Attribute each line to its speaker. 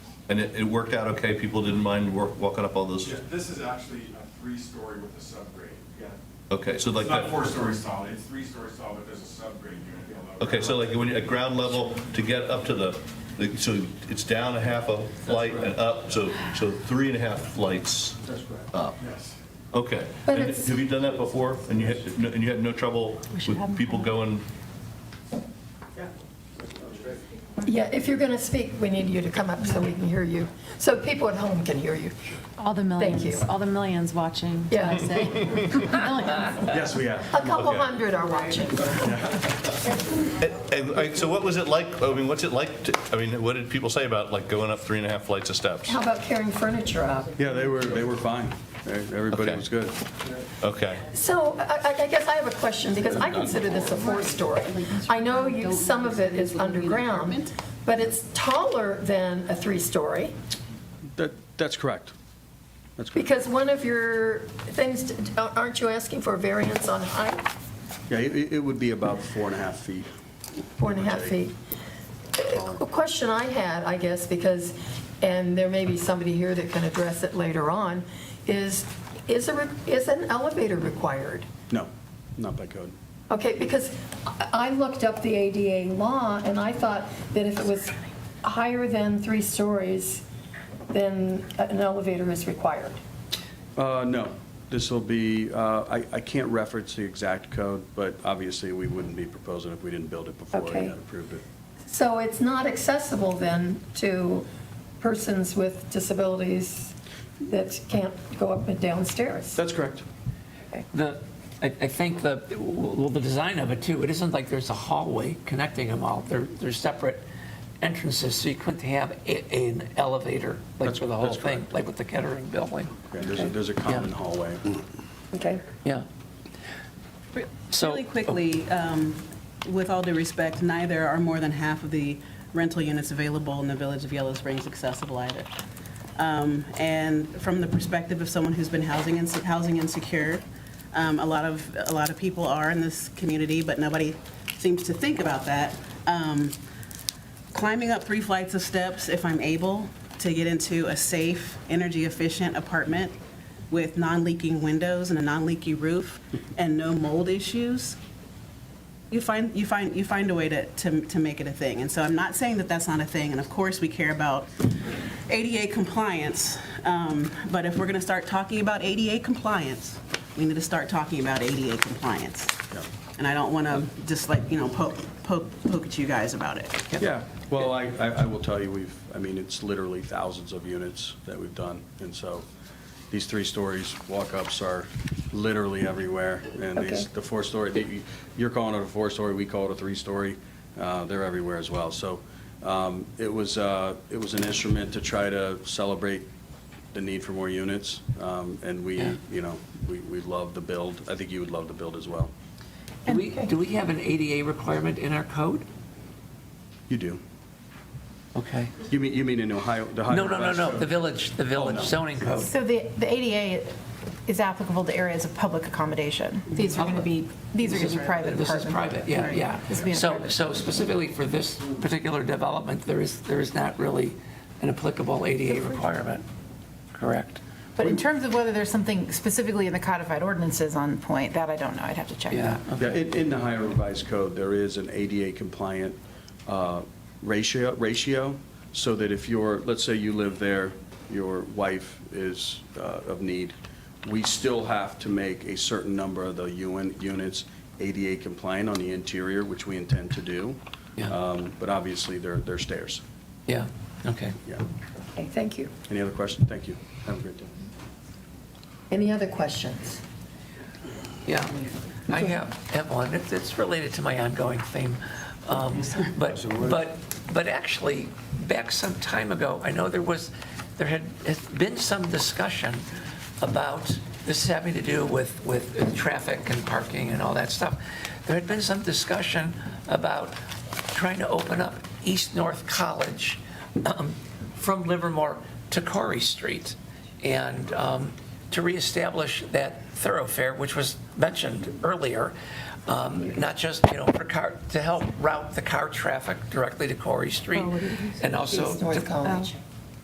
Speaker 1: And it, it worked out okay? People didn't mind wa- walking up all those?
Speaker 2: Yeah, This is actually a three-story with a subgrade, yeah.
Speaker 1: Okay, so like,
Speaker 2: It's not
Speaker 1: that-
Speaker 2: four stories tall, it's three stories tall, but there's a subgrade unit below.
Speaker 1: okay, so like when you're at ground level to get up to the, the- so it's down a half a flight and up, so, so three and a half flights
Speaker 3: That's correct.
Speaker 1: up.
Speaker 2: Yes.
Speaker 1: Okay.
Speaker 4: But
Speaker 1: And
Speaker 4: it's-
Speaker 1: Have you done that before? And you had, no- and you had no trouble
Speaker 4: We should have
Speaker 1: with
Speaker 4: them
Speaker 1: people
Speaker 4: come.
Speaker 1: going,
Speaker 4: Yeah, if you're going to speak, we need you to come up so we can hear you, so people at home can hear you.
Speaker 5: All the
Speaker 4: Thank
Speaker 5: millions,
Speaker 4: you.
Speaker 5: all the millions watching,
Speaker 4: Yeah.
Speaker 5: that's what I say. Millions.
Speaker 6: Yes, we have.
Speaker 4: A couple
Speaker 1: Okay.
Speaker 4: hundred are watching.
Speaker 1: And- and, like, so what was it like, I mean, what's it like, to- I mean, what did people say about like going up three and a half flights of steps?
Speaker 4: How about carrying furniture up?
Speaker 6: Yeah, they were, they were fine. Everybody
Speaker 1: Okay.
Speaker 6: was good.
Speaker 1: Okay.
Speaker 4: So I I- I guess I have a question, because I consider this a four-story. I know you, some of it is underground, but it's taller than a three-story,
Speaker 6: That, that's correct. That's correct.
Speaker 4: because one of your things, aren't you asking for variance on height?
Speaker 6: Yeah, it, it would be about four and a half feet.
Speaker 4: four and a half feet. A question I had, I guess, because, and there may be somebody here that can address it later on, is, is a, re- is an elevator required?
Speaker 6: No, not by code.
Speaker 4: Okay, because I I looked up the ADA law, and I thought that if it was higher than three stories, then an elevator is required.
Speaker 6: Uh, no, this will be, uh, I, I can't reference the exact code, but obviously we wouldn't be proposing if we didn't build it before
Speaker 4: Okay.
Speaker 6: and had approved it.
Speaker 4: So it's not accessible then to persons with disabilities that can't go up and down stairs?
Speaker 6: That's correct.
Speaker 7: The, I, I think the, well, the design of it too, it isn't like there's a hallway connecting them all. They're, they're separate entrances, so you couldn't have a, an elevator, like
Speaker 6: That's-
Speaker 7: for the whole
Speaker 6: that's
Speaker 7: thing,
Speaker 6: correct.
Speaker 7: like with the Kettering building.
Speaker 6: Yeah, there's, a- there's a common
Speaker 7: Yeah.
Speaker 6: hallway.
Speaker 4: Okay.
Speaker 7: Yeah. So-
Speaker 8: Really quickly, um, with all due respect, neither are more than half of the rental units available in the Village of Yellow Springs accessible either. Um, And from the perspective of someone who's been housing inse- housing insecure, um, a lot of, a lot of people are in this community, but nobody seems to think about that. Um, Climbing up three flights of steps, if I'm able, to get into a safe, energy-efficient apartment with non-leaking windows and a non-leaky roof and no mold issues, you find, you find, you find a way to, to, to make it a thing. And so I'm not saying that that's not a thing, and of course, we care about ADA compliance, um, but if we're gonna start talking about ADA compliance, we need to start talking about ADA compliance. And I don't wanna just like, you know, poke, poke, poke at you guys about it.
Speaker 6: Yeah, well, I, I I will tell you, we've, I mean, it's literally thousands of units that we've done, and so these three stories, walk-ups are literally everywhere, and these,
Speaker 4: Okay.
Speaker 6: the four-story, the- you're calling it a four-story, we call it a three-story, uh, they're everywhere as well. So um, it was, uh, it was an instrument to try to celebrate the need for more units, um, and we,
Speaker 7: Yeah.
Speaker 6: you know, we we love the build, I think you would love the build as well.
Speaker 7: Do we, do we have an ADA requirement in our code?
Speaker 6: You do.
Speaker 7: Okay.
Speaker 6: You mean, you mean in Ohio, the Ohio?
Speaker 7: No, no, no,
Speaker 6: West
Speaker 7: no,
Speaker 6: Coast?
Speaker 7: the village, the village
Speaker 6: no.
Speaker 7: zoning code.
Speaker 9: So the, the ADA is applicable to areas of public accommodation. These are going to be, these are going to be private
Speaker 7: This is
Speaker 9: apartment
Speaker 7: private, yeah,
Speaker 9: Right.
Speaker 7: yeah.
Speaker 9: This would be in a
Speaker 7: So,
Speaker 9: private-
Speaker 7: so specifically for this particular development, there is, there is not really an applicable ADA requirement, correct?
Speaker 9: But in terms of whether there's something specifically in the codified ordinances on point, that I don't know. I'd have to check
Speaker 7: Yeah.
Speaker 9: that.
Speaker 6: Yeah, in, in the higher revised code, there is an ADA compliant uh, ratio, ratio, so that if you're, let's say you live there, your wife is uh, of need, we still have to make a certain number of the UN, units ADA compliant on the interior, which we intend to do.
Speaker 7: Yeah.
Speaker 6: Um, But obviously, they're, they're stairs,
Speaker 7: Yeah, okay.
Speaker 6: yeah.
Speaker 4: Okay, thank you.
Speaker 6: Any other questions? Thank you. Have a great day.
Speaker 4: Any other questions?
Speaker 7: Yeah, I have, have one. It's, it's related to my ongoing theme. Um, But, but, but actually, back some time ago, I know there was, there had had been some discussion about, this having to do with, with traffic and parking and all that stuff. There had been some discussion about trying to open up East North College um, from Livermore to Corey Street and um, to reestablish that thoroughfare, which was mentioned earlier, um, not just, you know, for car,
Speaker 4: Oh,
Speaker 7: to help route the car traffic directly to Corey Street and also
Speaker 4: East North
Speaker 7: to- Oh.
Speaker 4: College.